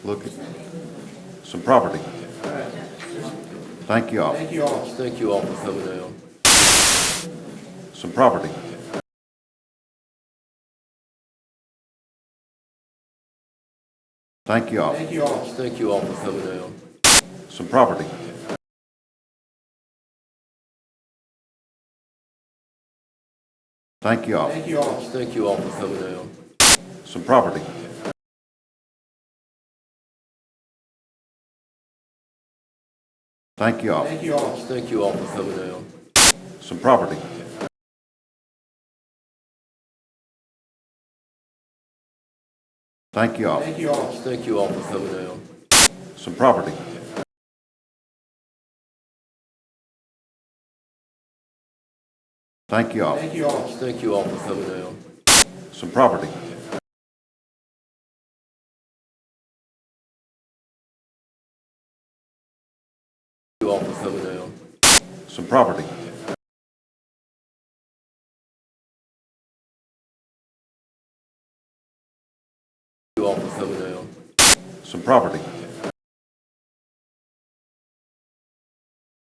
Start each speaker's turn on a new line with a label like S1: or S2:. S1: look at some property. Thank you all.
S2: Thank you all for coming out.
S1: Some property. Thank you all.
S2: Thank you all for coming out.
S1: Some property. Thank you all.
S2: Thank you all for coming out.
S1: Some property. Thank you all.
S2: Thank you all for coming out.
S1: Some property. Thank you all.
S2: Thank you all for coming out.
S1: Some property. Thank you all.
S2: Thank you all for coming out.
S1: Some property.
S2: You all for coming out.
S1: Some property.
S2: You all for coming out.
S1: Some property.